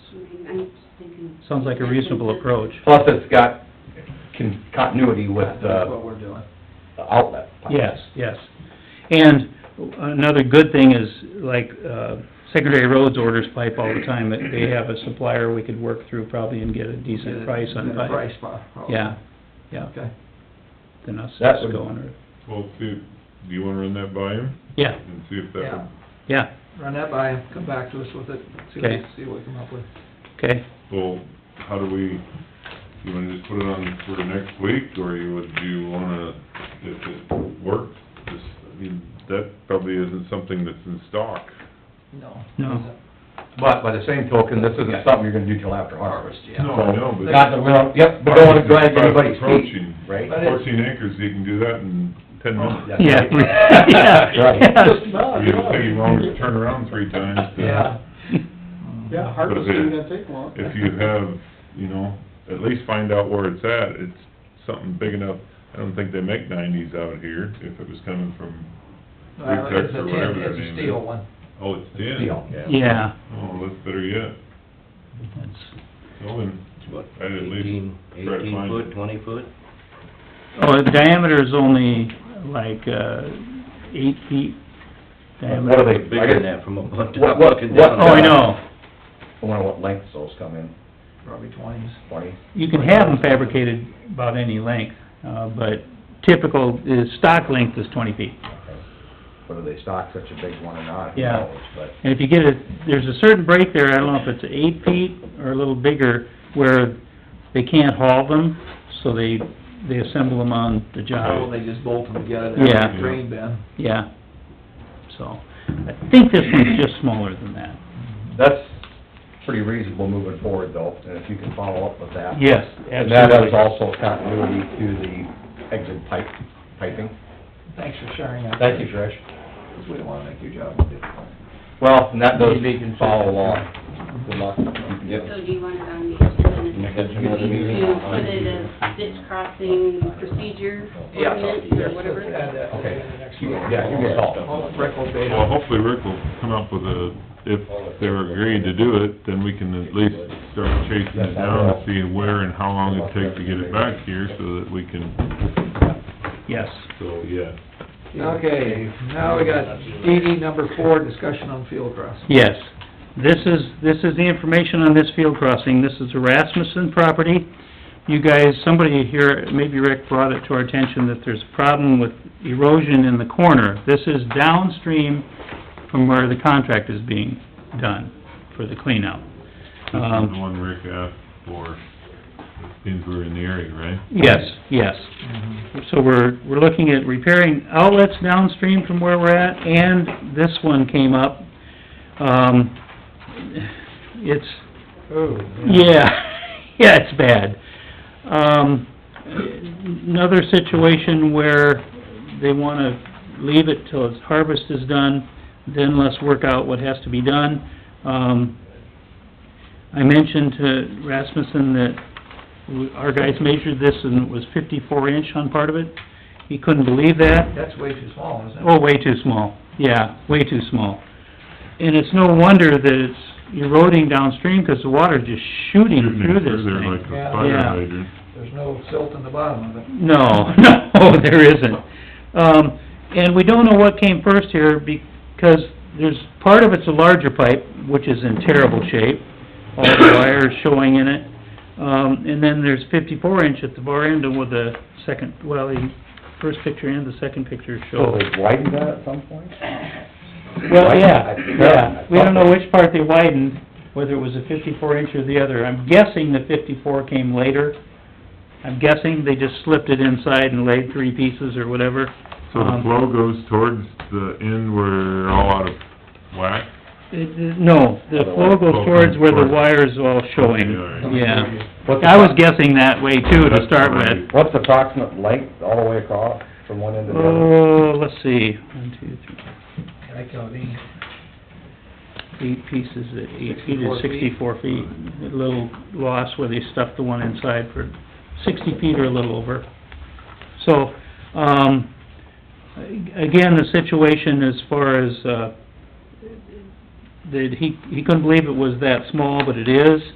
Sounds like a reasonable approach. Plus, it's got con- continuity with That's uh, the what we're doing. outlet. Yes, yes. And another good thing is, like, uh, Secretary Rhodes orders pipe all the time, that they have a supplier we could work through probably and get a decent price on Get a pipe. price pro- probably. Yeah, yeah, Okay. then us That us would- going, or, Well, see, do you wanna run that by him yeah, and see if Yeah. that yeah, Run that by him, come back to us with it, see Okay. what, see what we come up with. okay. would, well, how do we, you wanna just put it on for next week, or you would, do you wanna, if it works, just, I mean, that probably isn't something that's in stock. No. No. But by the same token, this isn't something you're gonna do till after harvest. Yeah. No, I know, but- Not that we don't, yep, we don't wanna drag anybody's feet, Approaching right? But it- Fourteen acres, you can do that in ten Oh, minutes. Yeah. Just about, You don't take you long to turn around three times. to- Yeah. Yeah, harvest isn't gonna take long. If you have, you know, at least find out where it's at, it's something big enough, I don't think they make nineties out here, if it was coming from, Well, It's Pretext or a whatever tin, their it's name a is. steel one. oh, it's tin. Deal, Yeah, Oh, that's better yet, that's, well, then, What, I'd at least eighteen, try to eighteen find it. foot, twenty foot? oh, the diameter is only like, uh, eight feet What diameter. are they, I Bigger than guess, that from a butt What- top what- looking what- down. Oh, I know. I wonder what lengths those come in, Probably twenties. twenty? You can have them fabricated about any length, uh, but typical, is stock length is twenty feet. Whether they stock such a big one or not, who Yeah. knows, but And if you get a, there's a certain break there, I don't know if it's eight feet or a little bigger, where they can't haul them, so they, they assemble them on the Oh, job, they just bolt them together. Yeah. Drain bin. yeah. So, I think this one's just smaller than that. that's pretty reasonable moving forward though, and if you can follow up with that. Yes, And that is absolutely. also continuity to the exit pipe, piping. Thanks for sharing that. Thank you, Trish. Because we don't wanna make your job difficult. Well, and that does follow along. Good luck. So do you want it on the agenda Because you to know the meeting put online. it as ditch crossing procedure Yeah. ordinance or whatever? Add that to Okay. the next You- one. yeah, you can call. All Rick will date Well, it. hopefully Rick will come up with a, if they're agreed to do it, then we can at least start chasing it down and see where and how long it takes to get it back here, so that we can, Yes. so, yeah. Okay, now we got DD number four, discussion on field crossing. Yes. This is, this is the information on this field crossing. This is the Rasmussen property. You guys, somebody here, maybe Rick brought it to our attention that there's a problem with erosion in the corner. This is downstream from where the contract is being done for the cleanout. This is the Um, one Rick asked for, since we're in the area, right? yes, yes. Mm-hmm. So we're, we're looking at repairing outlets downstream from where we're at, and this one came up. Um, it's, Oh. Yeah, yeah, it's bad. Um, another situation where they wanna leave it till its harvest is done, then let's work out what has to be done. Um, I mentioned to Rasmussen that w- our guys measured this and it was fifty-four inch on part of it. He couldn't believe that. That's way too small, isn't it? Oh, way too small, yeah, way too small. And it's no wonder that it's eroding downstream, 'cause the water's just shooting through this They're like thing. a Yeah. fire Yeah. hydrant. There's no silt in the bottom of it. No, no, there isn't. Um, and we don't know what came first here, because there's, part of it's a larger pipe, which is in terrible shape, all the wires showing in it. Um, and then there's fifty-four inch at the far end, and with the second, well, the first picture and the second picture So show. they widened that at some point? Well, Right? yeah, I- yeah, we don't know I- which part they widened, whether it was a fifty-four inch or the other, I'm guessing the fifty-four came later. I'm guessing they just slipped it inside and laid three pieces or whatever. So the Um, flow goes towards the end where all out of whack? It- it- No, the flow goes towards where the wire's all showing, Okay, all right. yeah. What's the- I was guessing that way too, to That's start what I- with. What's the approximate length all the way across from one end to the other? Oh, let's see, one, two, three, I count these. eight pieces, at eight feet 64 is feet. sixty-four feet. A little loss where they stuffed the one inside for sixty feet or a little over. So, um, a- again, the situation as far as, uh, that he, he couldn't believe it was that small, but it is.